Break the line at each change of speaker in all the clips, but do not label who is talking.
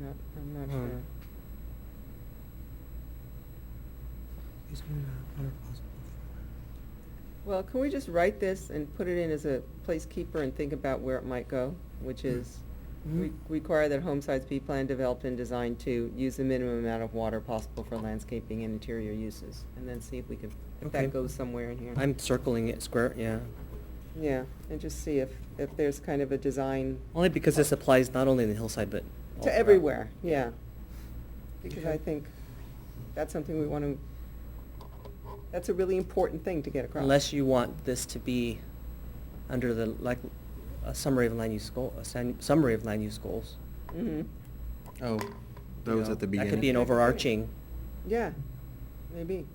not, I'm not
Hmm.
sure.
Easement and water possible.
Well, can we just write this and put it in as a placekeeper and think about where it might go, which
Hmm.
is re- require that home sites be planned, developed, and designed to use the minimum amount of water possible for landscaping and interior uses, and then see if we can, if
Okay.
that goes somewhere in here.
I'm circling it square, yeah.
Yeah, and just see if, if there's kind of a design
Only because this applies not only in the hillside, but.
to
all throughout.
everywhere, yeah. Because I
Okay.
think that's something we want to, that's a really important thing to get across.
Unless you want this to be under the, like, a summary of land use goal, a san- summary of land use goals.
Mhm.
Oh,
you
those
know.
at the beginning.
That could be an overarching,
Yeah, maybe.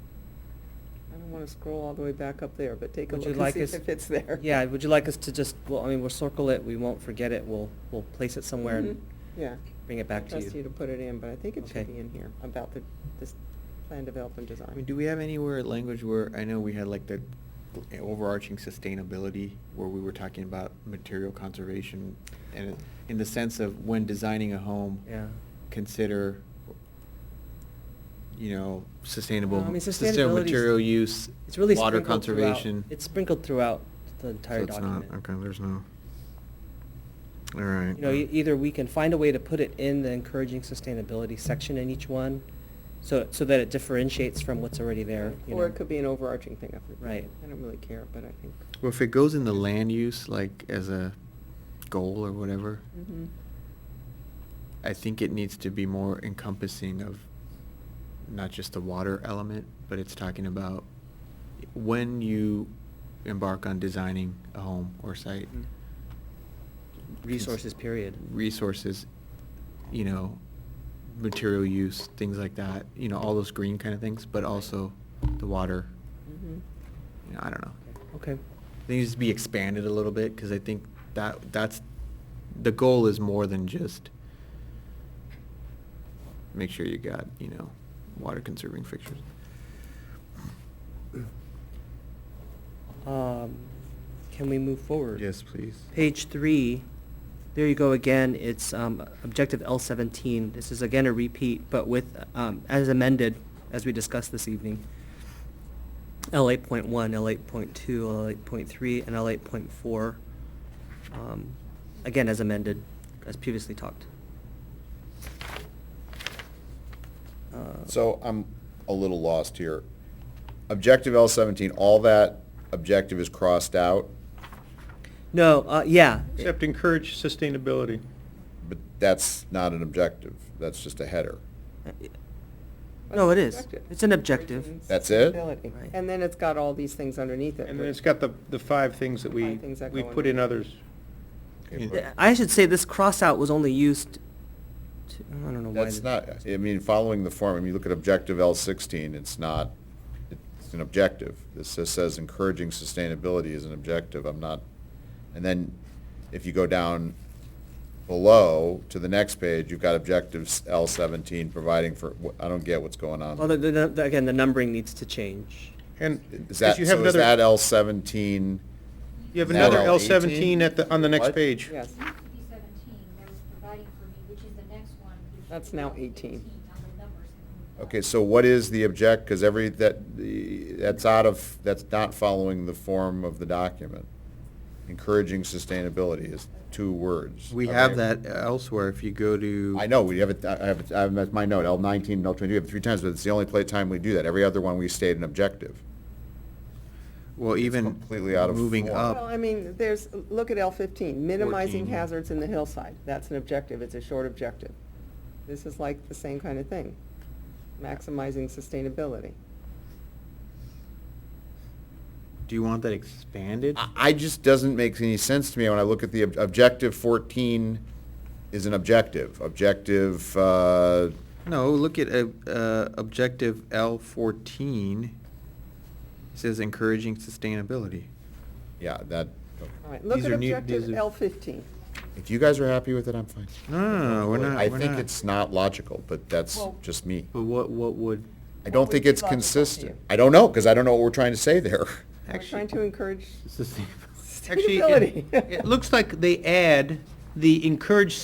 I don't want to scroll all the way back up there, but take a
Would you
look and
like
see
us-
if it's there.
yeah, would you like us to just, well, I mean, we'll circle it, we won't forget it, we'll, we'll place it somewhere
Mhm.
and
Yeah.
bring it back to
Trust you to
you.
put it in, but I think it
Okay.
should be in here about the, this plan development
I mean,
design.
do we have anywhere language where, I know we had like the overarching sustainability, where we were talking about material conservation, and it- in the sense of when designing a home,
Yeah.
consider, you know, sustainable,
No, I mean,
sustainable
sustainability's-
material use,
It's really
water
sprinkled throughout-
conservation.
It's sprinkled throughout the
So
entire
it's not-
document.
Okay, there's no, all right.
You know, e- either we can find a way to put it in the encouraging sustainability section in each one, so, so that it differentiates from what's already there, you know.
Or it could be an overarching thing. I forget.
Right.
I don't really care, but I think.
Well, if it goes in the land use, like as a goal or
Mm-hmm.
whatever,
Mhm.
I think it needs to be more encompassing of not just the water element, but it's talking about when you embark on designing a home or site,
Resources, period.
resources, you know, material use, things like that, you know, all those green kind of things, but also the water,
Mhm.
you know, I don't know.
Okay,
It needs to be expanded a little bit, because I think that, that's, the goal is more than just make sure you got, you know, water conserving fixtures.
um, can we move forward?
Yes, please.
Page three, there you go again, it's, um, objective L seventeen, this is again a repeat, but with, um, as amended, as we discussed this evening. L eight point one, L eight point two, L eight point three, and L eight point four, um, again, as amended, as previously talked. Uh,
So I'm a little lost here. Objective L seventeen, all that objective is crossed out,
No, uh, yeah.
Except encourage sustainability.
but that's not an objective. That's just a header.
No, it is,
Objective.
it's an objective.
That's it?
Ability.
Right.
And then it's got all these things underneath it.
And then
but-
it's got the, the five things that we,
Five things that
we
go in.
put in others.
Okay,
Th-
but
I should say this cross-out was only used to, I don't know why.
That's
the-
not, I mean, following the form, I mean, you look at objective L sixteen, it's not, it's an objective. This just says encouraging sustainability is an objective. I'm not, and then if you go down below to the next page, you've got objectives L seventeen providing for, I don't get what's going on.
Well, the, the- the- again, the numbering needs to change.
And
Is
because
that,
you have
so is that
another,
L seventeen?
you have
is that
another
L
L
18?
seventeen at the, on the next
What?
page.
Yes.
It used to be seventeen, there was providing for me, which is the next one. which is
That's now
about
18.
on the numbers that moved up.
Okay, so what is the object, because every, that, the- that's out of, that's not following the form of the document. Encouraging sustainability is two words.
We
Okay.
have that elsewhere, if you go to.
I know, we have it, I have it, I have it as my note, L nineteen, L twenty-two, we have it three times, but it's the only play time we do that. Every other one, we state an objective.
Well,
It's
even
completely out of
moving
form.
Well,
up,
I mean, there's, look at L fifteen, minimizing
14.
hazards in the hillside. That's an objective, it's a short objective. This is like the same kind of thing, maximizing sustainability.
do you want that expanded?
I, I just doesn't make any sense to me when I look at the ob- objective fourteen is an objective. Objective, uh,
No, look at, uh, uh, objective L fourteen, It says encouraging sustainability.
yeah, that,
All right, look
These
at
are new- these
objective
are-
L fifteen.
if you guys are happy with it, I'm fine.
No, no, no, no, we're not,
I
we're
think
not.
it's not logical, but that's
Well-
just me.
But what, what would,
I
What
don't
would
think
be
it's
logical to
consistent.
you?
I don't know, because I don't know what we're trying to say there.
We're trying to encourage
sustainable.
Actually, it-
sustainability.
It looks like they add the encourage